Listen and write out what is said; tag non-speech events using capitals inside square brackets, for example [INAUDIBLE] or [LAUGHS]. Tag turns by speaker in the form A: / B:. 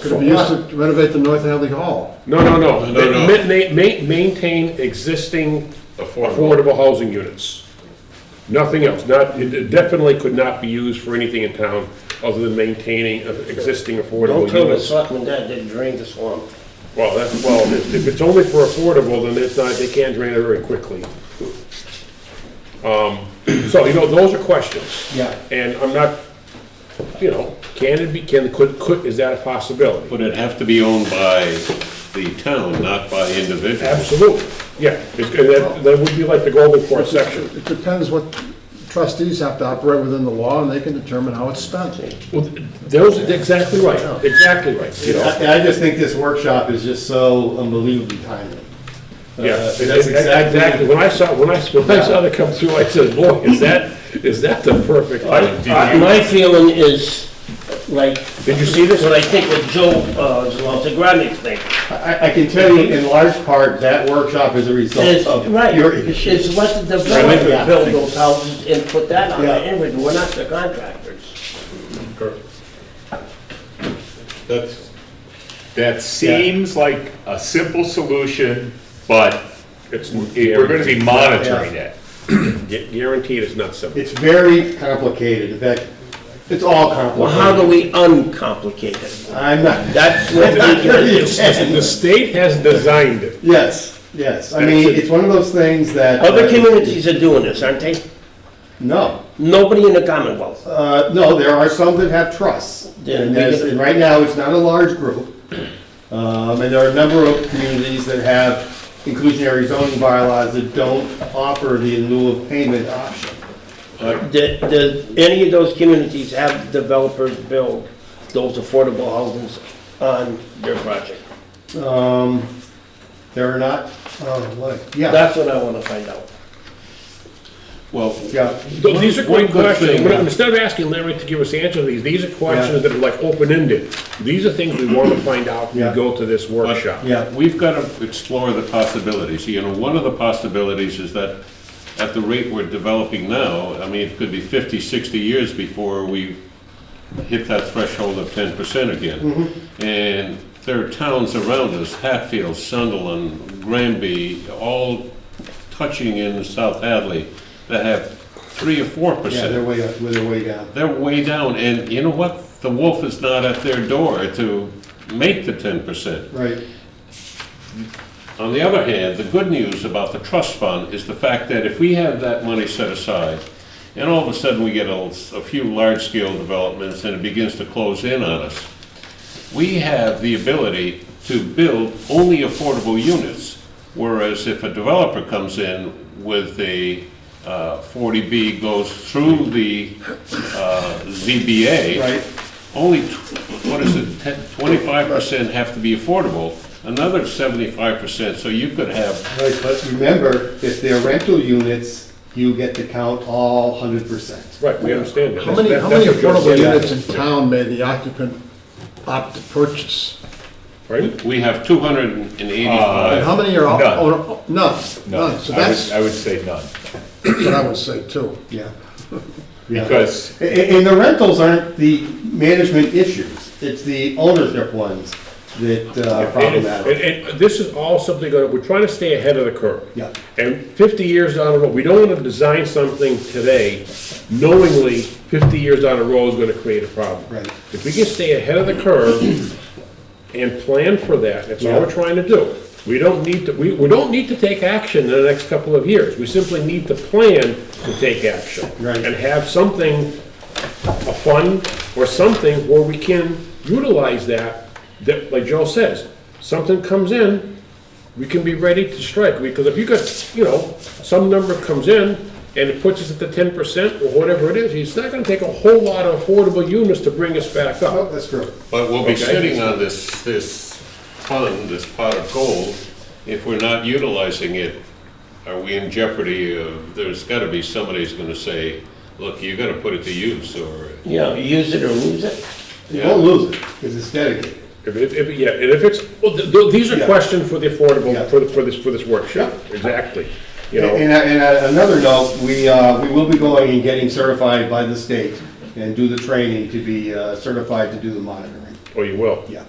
A: Could it be used to renovate the North Hadley Hall?
B: No, no, no.
C: No, no.
B: Ma- ma- ma- maintain existing
C: Affordable.
B: affordable housing units. Nothing else, not, it definitely could not be used for anything in town other than maintaining of existing affordable
D: Don't tell me
B: units.
D: Selectman Dad didn't drain the swamp.
B: Well, that's, well, if if it's only for affordable, then it's not, they can drain it very quickly. Um, So, you know, those are questions.
D: Yeah.
B: And I'm not, you know, can it be, can, could, could, is that a possibility?
C: But it'd have to be owned by the town, not by individuals.
B: Absolutely, yeah, it's, that, that would be like the golden court section.
A: It depends what trustees have to operate within the law, and they can determine how it's spent.
B: Well, th- those, exactly right, exactly right, you know?
E: I I just think this workshop is just so unbelievably timely.
B: Yeah,
E: Uh,
B: e-
E: That's
B: e-
E: exactly.
B: When I saw, when I, when I saw that come through, I said, boy, is that, is that the perfect time?
D: Uh, My feeling is, like,
B: Did you see this?
D: what I think with Joe, uh, Zalantagramnik thing,
E: I, I can tell you in large part, that workshop is a
D: is,
E: result of
D: right,
E: your
D: is
E: issues.
D: let the
E: Yeah.
D: developer build those houses and put that on
E: Yeah.
D: the inventory, we're not the contractors.
C: That's. That seems like a simple solution, but
B: It's
C: we're gonna be monitoring
E: Yeah.
C: it.
B: Gu- Guaranteed it's not
A: [LAUGHS]
B: simple.
E: It's very complicated, in fact, it's all
D: Well, how do we
E: complicated.
D: uncomplicate it?
E: I'm not,
D: That's
B: [LAUGHS]
D: what we,
B: The state has designed it.
E: yes, yes, I mean, it's one of those things that.
D: other communities are doing this, aren't they?
E: No,
D: Nobody in the Commonwealth.
E: Uh, no, there are some that have trusts.
D: Yeah,
E: And
D: we
E: there's-
D: get-
E: and right now, it's not a large group. Um, And there are a number of communities that have inclusionary zoning bylaws that don't offer the in lieu of payment option.
D: Did, did any of those communities have developers build those affordable housings on their project?
E: Um, There are not, oh, what, yeah,
D: That's what I wanna find out.
C: Well,
E: yeah.
B: Th- These are great
E: One good
B: questions.
E: thing,
B: We're not-
E: yeah.
B: Instead of asking Larry to give us the answer to these, these are questions that are like open-ended. These are things we want to find out when
E: Yeah.
B: we go to this workshop.
E: Yeah.
C: We've got to explore the possibilities. You know, one of the possibilities is that at the rate we're developing now, I mean, it could be 50, 60 years before we hit that threshold of 10% again.
E: Mm-hmm.
C: And there are towns around us, Hatfield, Sunderland, Granby, all touching in South Hadley, that have 3 or 4%.
E: Yeah, they're way, up- they're way down.
C: They're way down, and you know what? The wolf is not at their door to make the 10%.
E: Right,
C: On the other hand, the good news about the trust fund is the fact that if we have that money set aside, and all of a sudden we get a, a few large-scale developments and it begins to close in on us, we have the ability to build only affordable units. Whereas if a developer comes in with a uh, 40B goes through the uh, ZBA.
E: Right.
C: Only, tw- what is it, ten- 25% have to be affordable, another 75%, so you could have,
E: right, but remember, if they're rental units, you get to count all hundred percent.
B: Right, we understand that.
A: How many,
B: That's-
A: how many
B: that's what Joe's
A: affordable
B: saying.
A: units in town may the occupant opt to purchase?
B: Right?
C: we have 285. Uh,
A: And how many are,
F: None.
A: own- none, none, so
F: I would-
A: that's
F: I would say none,
A: what I would say too.
E: Yeah. Yeah.
F: because
E: A- a- And the rentals aren't the management issues, it's the ownership ones that uh, are
B: And,
E: problematic.
B: and and this is all something that, we're trying to stay ahead of the curve.
E: Yeah.
B: And fifty years down the road, we don't want to design something today knowingly fifty years down the road is going to create a problem.
E: Right.
B: If we can stay ahead of the curve and plan for that, that's all
E: Yeah.
B: we're trying to do. We don't need to, we, we don't need to take action in the next couple of years. We simply need to plan to take action.
E: Right.
B: And have something a fund or something where we can utilize that, that, like Joe says, something comes in, we can be ready to strike, because if you got, you know, some number comes in and it puts us at the ten percent or whatever it is, it's not gonna take a whole lot of affordable units to bring us back
E: Oh,
B: up.
E: that's true.
C: But we'll be
B: Okay.
C: sitting on this, this fund, this pot of gold, if we're not utilizing it, are we in jeopardy of, there's gotta be somebody who's gonna say, look, you gotta put it to use, or,
D: You know, use it or lose it.
E: You won't lose it, because it's dedicated.
B: If, if, if- yeah, and if it's, well, th- th- these are
E: Yeah.
B: questions for the
E: Yeah.
B: affordable, for, the- for this, for this workshop, exactly, you know.
E: And, and on another note, we, uh, we will be going and getting certified by the state and do the training to be uh, certified to do the monitoring.
B: Or you will.
E: Yeah.